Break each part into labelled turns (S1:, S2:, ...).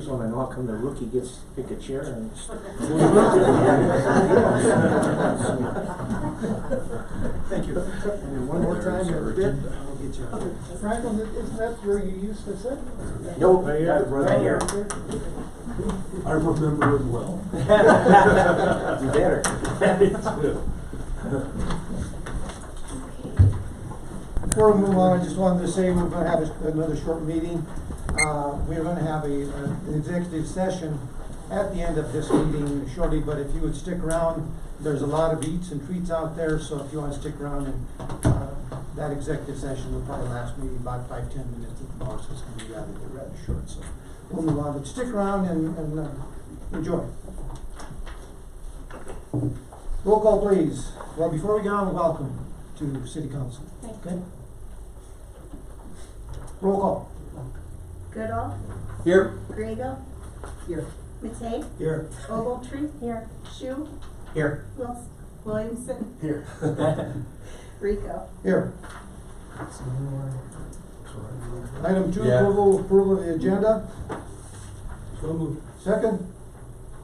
S1: come the rookie gets, to pick a chair and?
S2: Thank you. And then one more time, and a bit, I'll get you out.
S3: Franklin, isn't that where you used to sit?
S1: Nope,
S2: Right here?
S1: right here.
S2: I remember it well.
S1: You better.
S3: Before we move on, I just wanted to say we're gonna have a- another short meeting. Uh, we're gonna have a, a- an executive session at the end of this meeting shortly, but if you would stick around, there's a lot of eats and treats out there, so if you wanna stick around and, uh, that executive session will probably last maybe about five, ten minutes at the most, it's gonna be rather, rather short, so. We'll move on, but stick around and, and, uh, enjoy. Roll call please. Well, before we get on, welcome to city council. Okay. Roll call.
S4: Goodall,
S1: Here.
S4: Grego.
S3: Here.
S4: Matei,
S2: Here.
S4: Ogletree. Here. Shu,
S1: Here.
S4: Wils, Williamson,
S2: Here.
S4: Rico.
S3: Here. Item two,
S1: Yeah.
S3: approval, approval of the agenda.
S2: So moved.
S3: Second,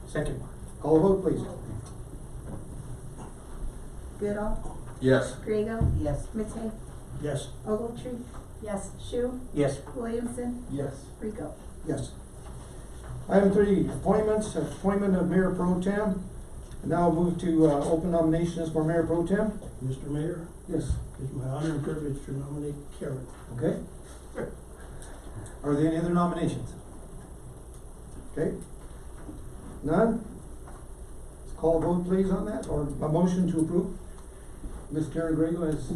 S1: Second.
S3: call a vote please.
S4: Goodall,
S1: Yes.
S4: Grego. Yes. Matei,
S2: Yes.
S4: Ogletree. Yes. Shu,
S1: Yes.
S4: Williamson,
S2: Yes.
S4: Rico.
S3: Yes. Item three, appointments, appointment of mayor pro tem. And now move to, uh, open nominations for mayor pro tem.
S2: Mr. Mayor,
S3: Yes.
S2: it's my honor and privilege to nominate Karen.
S3: Okay. Are there any other nominations? Okay. None? Let's Call a vote please on that, or a motion to approve. Ms. Karen Grego as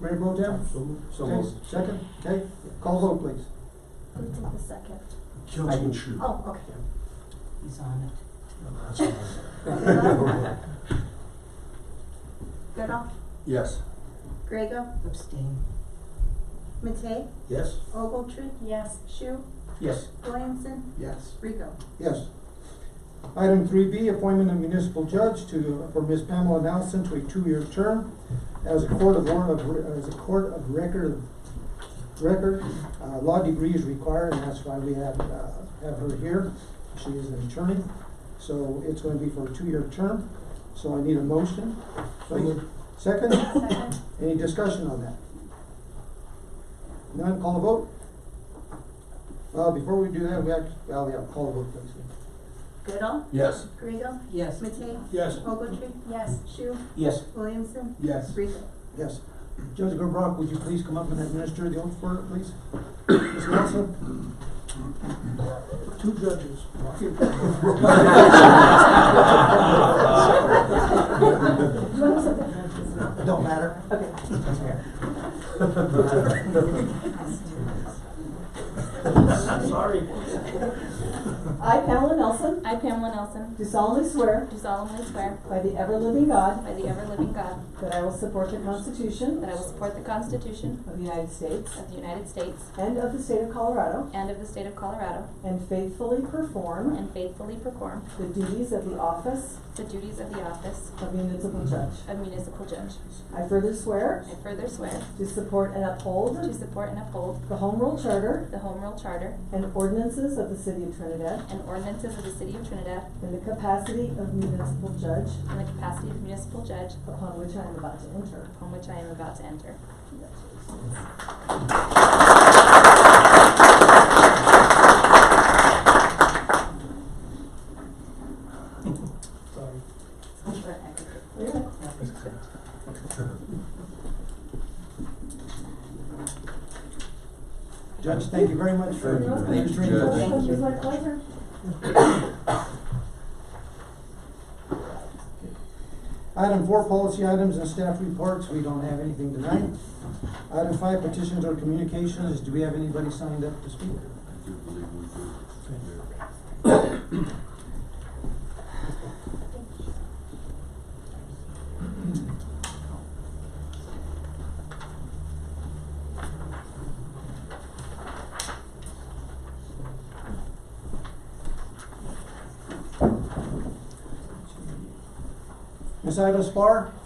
S3: Mayor Pro Tem?
S2: So moved.
S1: So
S3: Okay,
S1: moved.
S3: Second, okay, call vote please.
S4: Who took the second?
S1: I can shoot.
S4: Oh, okay.
S5: He's on it.
S4: Goodall,
S1: Yes.
S4: Grego,
S5: Abstain.
S4: Matei,
S2: Yes.
S4: Ogletree. Yes. Shu,
S1: Yes.
S4: Williamson,
S2: Yes.
S4: Rico.
S3: Yes. Item three B, appointment of municipal judge to, for Ms. Pamela Nelson to a two-year term as a court of, or- of- as a court of record, record, uh, law degree is required, and that's why we have, uh, have her here. She is an attorney, so it's gonna be for a two-year term, so I need a motion.
S2: So moved.
S3: Second,
S4: Second.
S3: any discussion on that? None, call a vote? Uh, before we do that, we have, well, yeah, call a vote, please.
S4: Goodall,
S1: Yes.
S4: Grego,
S5: Yes.
S4: Matei,
S2: Yes.
S4: Ogletree. Yes. Shu,
S1: Yes.
S4: Williamson,
S2: Yes.
S4: Rico.
S3: Yes. Judge Gobrock, would you please come up and administer the oath for it, please? Ms. Nelson?
S2: Two judges.
S3: It don't matter.
S2: Sorry.
S6: I, Pamela Nelson,
S7: I, Pamela Nelson,
S6: do solemnly swear
S7: do solemnly swear
S6: by the ever-living God
S7: by the ever-living God
S6: that I will support the Constitution
S7: that I will support the Constitution
S6: of the United States
S7: of the United States
S6: and of the state of Colorado,
S7: and of the state of Colorado,
S6: and faithfully perform
S7: and faithfully perform
S6: the duties of the office
S7: the duties of the office
S6: of municipal judge.
S7: of municipal judge.
S6: I further swear
S7: I further swear
S6: to support and
S7: to
S6: uphold
S7: support and uphold
S6: the Home Rule Charter
S7: the Home Rule Charter
S6: and ordinances of the city of Trinidad
S7: and ordinances of the city of Trinidad
S6: in the capacity of municipal judge
S7: in the capacity of municipal judge
S6: upon which I am about to enter.
S7: upon which I am about to enter.
S6: Congratulations.
S2: Sorry.
S6: Yeah.
S3: Judge, thank you very much for
S1: Thank you. Thank
S3: administering
S1: you,
S3: the
S1: Judge.
S3: oath.
S6: It was my pleasure.
S3: Item four, policy items and staff reports, we don't have anything tonight. Item five, petitions or communications, do we have anybody signed up to speak? Ms. Ida Spar?